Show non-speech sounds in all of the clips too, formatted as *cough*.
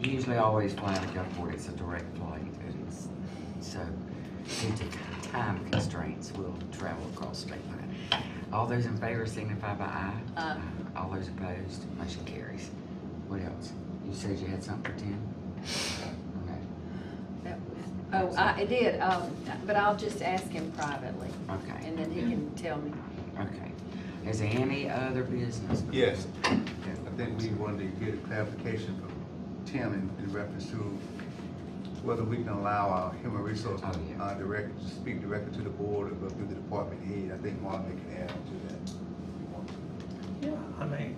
usually always fly out of Gulfport, it's a direct flight, and it's, so due to time constraints, we'll travel across state line. All those in favor signify by aye. Aye. Uh, All those opposed, motion carries. What else? You said you had something for Tim? Okay, That was- Oh, I, I did, um, but I'll just ask him privately, okay, and then he can tell me. okay. Is there any other business? Yes, I think we wanted to get a clarification from Tim in, in reference to whether we can allow our human resource, Oh, yeah. uh, director to speak directly to the board or go through the department head. I think Marvin can add to that. Yeah, I mean,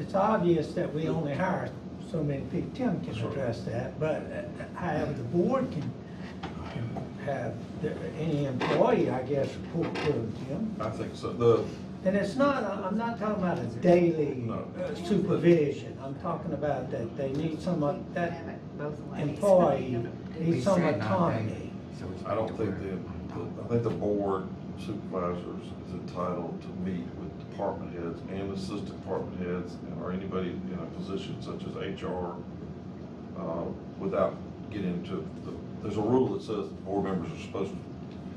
it's obvious that we only hire so many people. Tim can address that, but uh, however, the board can, can have their- any employee, I guess, report to Tim. I think so, the, And it's not, I- I'm not talking about a daily No. uh, supervision. I'm talking about that they need some, of- that *laughs* employee We needs some said not autonomy. daily, so it's I don't think aware. the, the- I think the board supervisors is entitled to meet with department heads and assistant department heads and- or anybody in a position such as HR, uh, without getting into the, there's a rule that says board members are supposed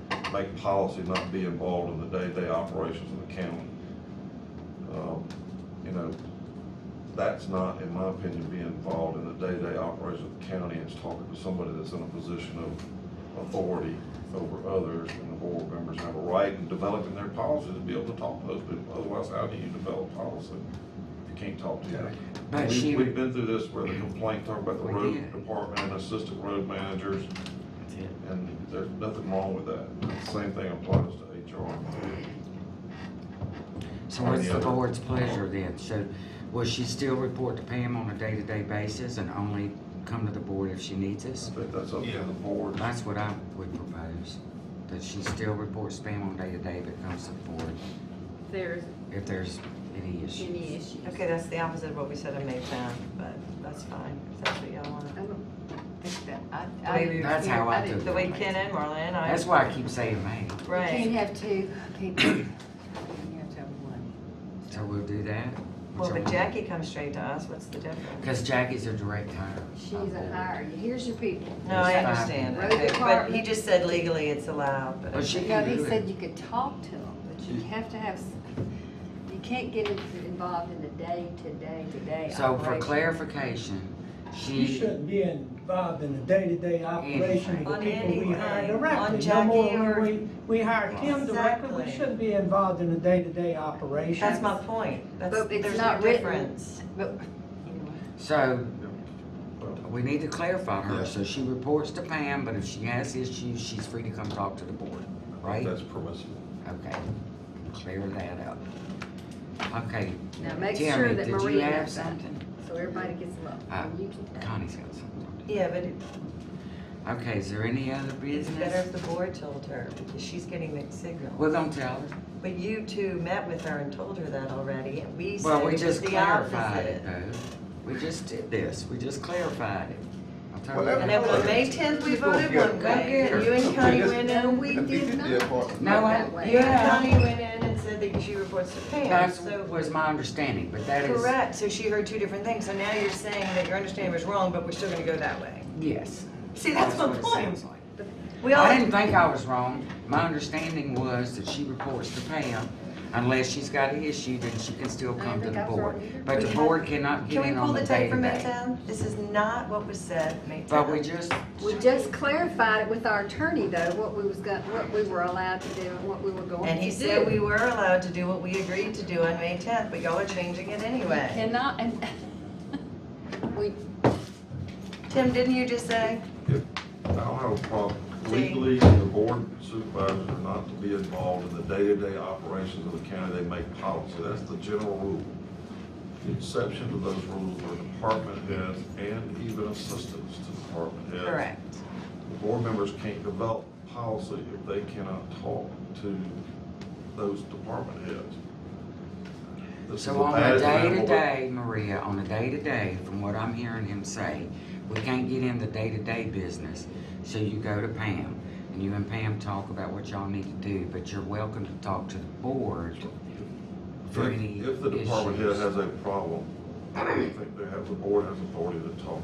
to make policy, not be involved in the day-to-day operations of the county. Um, You know, that's not, in my opinion, being involved in the day-to-day operations of the county. It's talking to somebody that's in a position of authority over others, and the board members have a right in developing their policies to be able to talk to those people. Otherwise, how do you develop policy if you can't talk to them? But We- she- We've been through this where the complaint talked about the We road did. department and assistant road managers, That's it. and there's nothing wrong with that. The Same thing applies to HR. So Or what's the the other. board's pleasure then? So will she still report to Pam on a day-to-day basis and only come to the board if she needs I us? think that's up to Yeah. the board. That's what I would propose, that she still reports to Pam on day-to-day but comes to the board There's if there's any issue. any issues. Okay, that's the opposite of what we said on May tenth, but that's fine, if that's what y'all want. I don't think that, I, I. Maybe didn't That's hear- how I didn't- do The way Ken and Marla and I. That's why I keep saying May. You can't Right, have two people. You have to have one. So we'll do that? well, but Jackie comes straight to us, what's the difference? Because Jackie's a direct hire. of She's board. a hire, here's your people. No, I It's fine. understand, Road okay, but he department. just said legally it's allowed, but. But she No, can he do said it. Mm. you could talk to them, but you have to have, s- you can't get in- involved in the day-to-day, today So for operation. clarification, You Mm. she, shouldn't be involved in the day-to-day operation of the Anything. Mm. On people we hire anything. directly. On No more Jackie when or- we- We hire Tim directly, we Exactly. shouldn't be involved in the day-to-day operation. That's my point, that's, But it's there's no not written. difference. But so Well, We need to clarify her, Yeah. so she reports to Pam, but if she has issues, she's free to come talk to the board, right? That's permissible. Okay, clear that up. Okay, now make sure Tammy, that did you Maria have has that, something? so everybody gets them up. Ah. Uh, And you can- Connie's got something. Yeah, but it- Okay, is there any other it's better business? if the board told her, because she's getting mixed signals. We're gonna tell her. But you two met with her and told her that already, and we said Well, we it was just the clarified it opposite. though. We just did this, we just clarified it. I'll tell Well, you. And then on May tenth, we voted one way, and you and Connie went in, And we Let me did get not. the apartment. No, I- that way. you and Yeah. Connie went in and said that she reports to Pam, That so. was my understanding, but that is, Correct, so she heard two different things, so now you're saying that your understanding was wrong, but we're still gonna go that way. yes. See, that's my what it sounds point. like. We all, I didn't think I was wrong. My understanding was that she reports to Pam. Unless she's got an issue, then she can still I come to think the I was wrong board. either. But the We board cannot can get we in pull on the the tape from May day-to-day. tenth? This is not what was said, May tenth. But we just, We just clarified it with our attorney though, what we was got, what we were allowed to do and what we were going to do. And he said we were allowed to do what we agreed to do on May tenth, but y'all are changing it anyway. And not, and *laughs* we, Tim, didn't you just say? I don't have a problem. See? Legally, the board supervisors are not to be involved in the day-to-day operations of the county. They make policy. That's the general rule. The exception to those rules are department heads and even assistants to department heads. Correct. The board members can't develop policy if they cannot talk to those department heads. This is so a on bad the example, but- day-to-day, Maria, on the day-to-day, from what I'm hearing him say, we can't get in the day-to-day business. So you go to Pam and you and Pam talk about what y'all need to do, but you're welcome to talk to the board for any If if the department head issues. has a problem, I think they have, the board has authority to talk